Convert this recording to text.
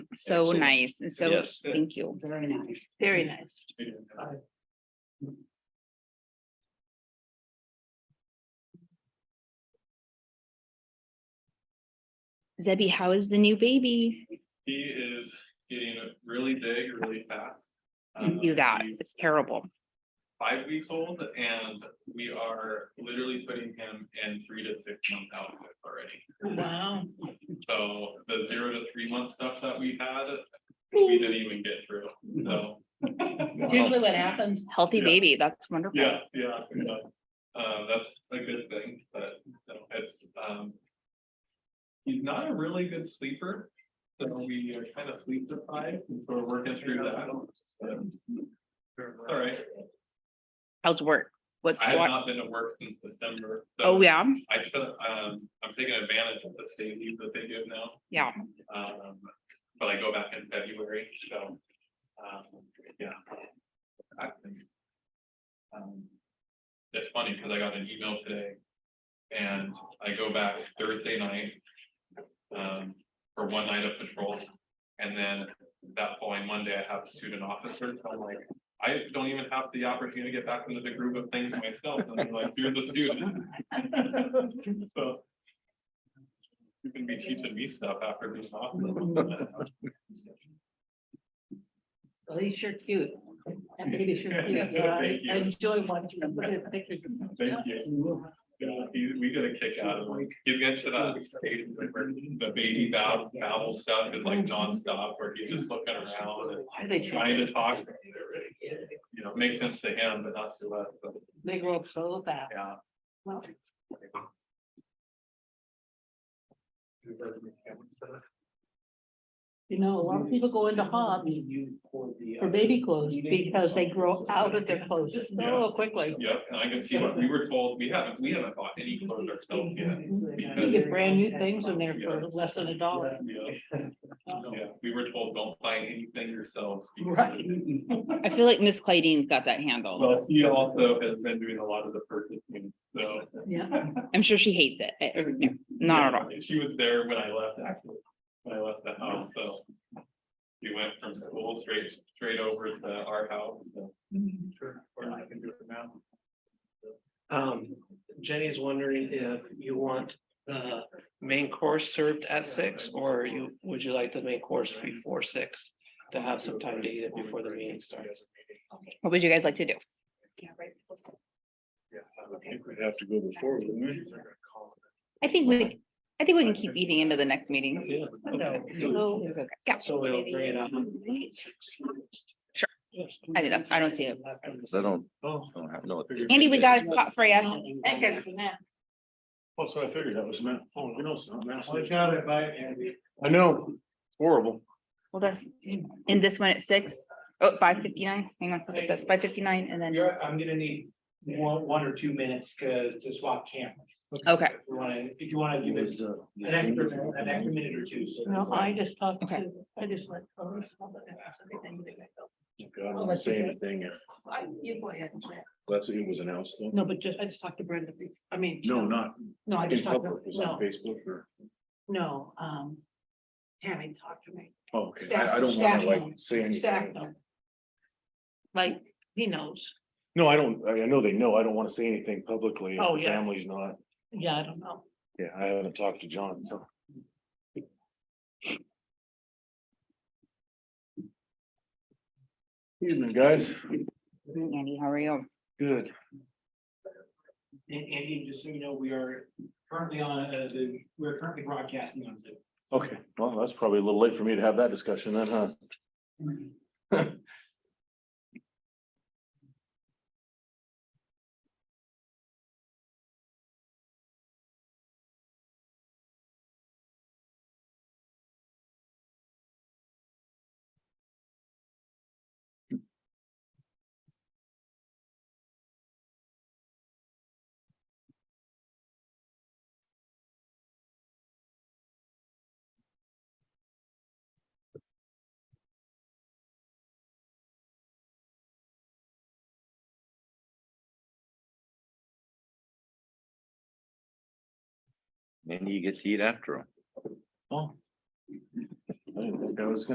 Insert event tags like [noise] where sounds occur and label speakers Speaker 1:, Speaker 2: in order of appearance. Speaker 1: so
Speaker 2: Excellent.
Speaker 1: nice and so,
Speaker 2: Yes. Mm.
Speaker 1: thank you.
Speaker 3: Very nice.
Speaker 4: Very nice.
Speaker 1: Zebby, how is the new baby?
Speaker 2: He is getting really big, really fast.
Speaker 1: I knew
Speaker 2: Um,
Speaker 1: that.
Speaker 2: he's
Speaker 1: It's terrible.
Speaker 2: Five weeks old and we are literally putting him in three to six month outfits already.
Speaker 4: Wow.
Speaker 2: So the zero to three month stuff that we had, we didn't even get through, so. [laughs]
Speaker 4: Usually what happens,
Speaker 1: Healthy
Speaker 2: Yeah.
Speaker 1: baby, that's wonderful.
Speaker 2: Yeah, yeah, yeah. Uh, that's a good thing, but no, it's, um. He's not a really good sleeper, so we are kind of sleep deprived, and so we're working through that. but it's All right,
Speaker 1: How's work? What's,
Speaker 2: I have
Speaker 1: wa-
Speaker 2: not been to work since December. so
Speaker 1: oh, yeah,
Speaker 2: I took, um, I'm taking advantage of the state leave that they give now.
Speaker 1: yeah.
Speaker 2: Um, but I go back in February, so, um, yeah. I think, um, It's funny, cause I got an email today and I go back Thursday night. Um, for one night of patrol and then that following Monday I have student officers, so I'm like. I don't even have the opportunity to get back into the groove of things myself, and I'm like, you're the student. [laughs] So. You can be teaching me stuff after being off. [laughs]
Speaker 4: Well, these sure cute. That baby sure cute. Yeah, I-
Speaker 2: [laughs] Thank you.
Speaker 4: I enjoy watching them. Look at the pictures.
Speaker 2: Thank you. Yeah, he- we get a kick out of him. He's getting to that stage where the baby babble, babble stuff is like nonstop, where he's just looking around and
Speaker 4: Why Are they
Speaker 2: trying
Speaker 4: trying
Speaker 2: to talk. to me. They're really, You know, it makes sense to him, but not to us, but
Speaker 4: They grow up so fast.
Speaker 2: yeah.
Speaker 4: Well, You know, a lot of people go into hobs for baby clothes because they grow out of their clothes so quickly.
Speaker 2: Yep, and I can see what we were told, we haven't, we haven't bought any clothes ourselves yet.
Speaker 4: You get brand new things in there for less than a dollar.
Speaker 2: Yeah, yeah, we were told, don't buy anything yourselves. because-
Speaker 4: Right.
Speaker 1: I feel like Miss Clayton's got that handled.
Speaker 2: Well, he also has been doing a lot of the purchasing, so.
Speaker 4: Yeah.
Speaker 1: I'm sure she hates it. Eh, I- I- no, Not at all.
Speaker 2: Yeah, She was there when I left, actually, when I left the house, so. We went from school straight, straight over to our house, so.
Speaker 5: Sure, or I can do it now. Um, Jenny's wondering if you want the main course served at six, or you, would you like the main course before six? To have some time to eat it before the meeting starts.
Speaker 1: What would you guys like to do?
Speaker 6: I think we'd have to go before, wouldn't we?
Speaker 1: I think we, I think we can keep eating into the next meeting.
Speaker 5: Yeah.
Speaker 4: So
Speaker 1: It's okay. Yeah,
Speaker 5: So we'll bring it up.
Speaker 1: Sure. I did that. I don't see it.
Speaker 6: Cause I don't,
Speaker 5: Oh,
Speaker 6: I don't have, no.
Speaker 1: Andy, we got a spot for you.
Speaker 5: oh, so I figured that was meant, oh, no, it's not.
Speaker 6: Watch
Speaker 5: out, I bite Andy. I know, horrible.
Speaker 1: Well, that's, in this one at six, oh, five fifty-nine, hang on, it says five fifty-nine and then,
Speaker 7: You're, I'm gonna need one, one or two minutes to, to swap cameras.
Speaker 1: okay,
Speaker 7: If you wanna, if you wanna give us
Speaker 6: uh,
Speaker 7: an extra, an extra minute or two. so-
Speaker 4: No, I just talked
Speaker 1: Okay.
Speaker 4: to, I just let. Lois know that that's everything that I felt.
Speaker 6: God, I'm not saying anything if
Speaker 4: I- You go ahead.
Speaker 6: that's, it was announced though.
Speaker 4: No, but just, I just talked to Brenda, I mean.
Speaker 6: No, not
Speaker 4: No, I
Speaker 6: in
Speaker 4: just talked,
Speaker 6: public,
Speaker 4: to
Speaker 6: it was
Speaker 4: no,
Speaker 6: on Facebook or,
Speaker 4: no, um, Tammy talked to me,
Speaker 6: oh, okay, I, I don't wanna like say
Speaker 4: staff
Speaker 6: anything.
Speaker 4: knows. Like, he knows,
Speaker 6: No, I don't, I, I know they know, I don't wanna say anything publicly,
Speaker 4: Oh,
Speaker 6: if the
Speaker 4: yeah.
Speaker 6: family's not,
Speaker 4: yeah, I don't know,
Speaker 6: yeah, I haven't talked to John, so. Evening, guys,
Speaker 1: Andy, how are you?
Speaker 6: good.
Speaker 7: And, Andy, just so you know, we are currently on, uh, the, we're currently broadcasting on Zoom.
Speaker 6: Okay, well, that's probably a little late for me to have that discussion then, huh?
Speaker 8: And you get to eat after all.
Speaker 6: I didn't think I was gonna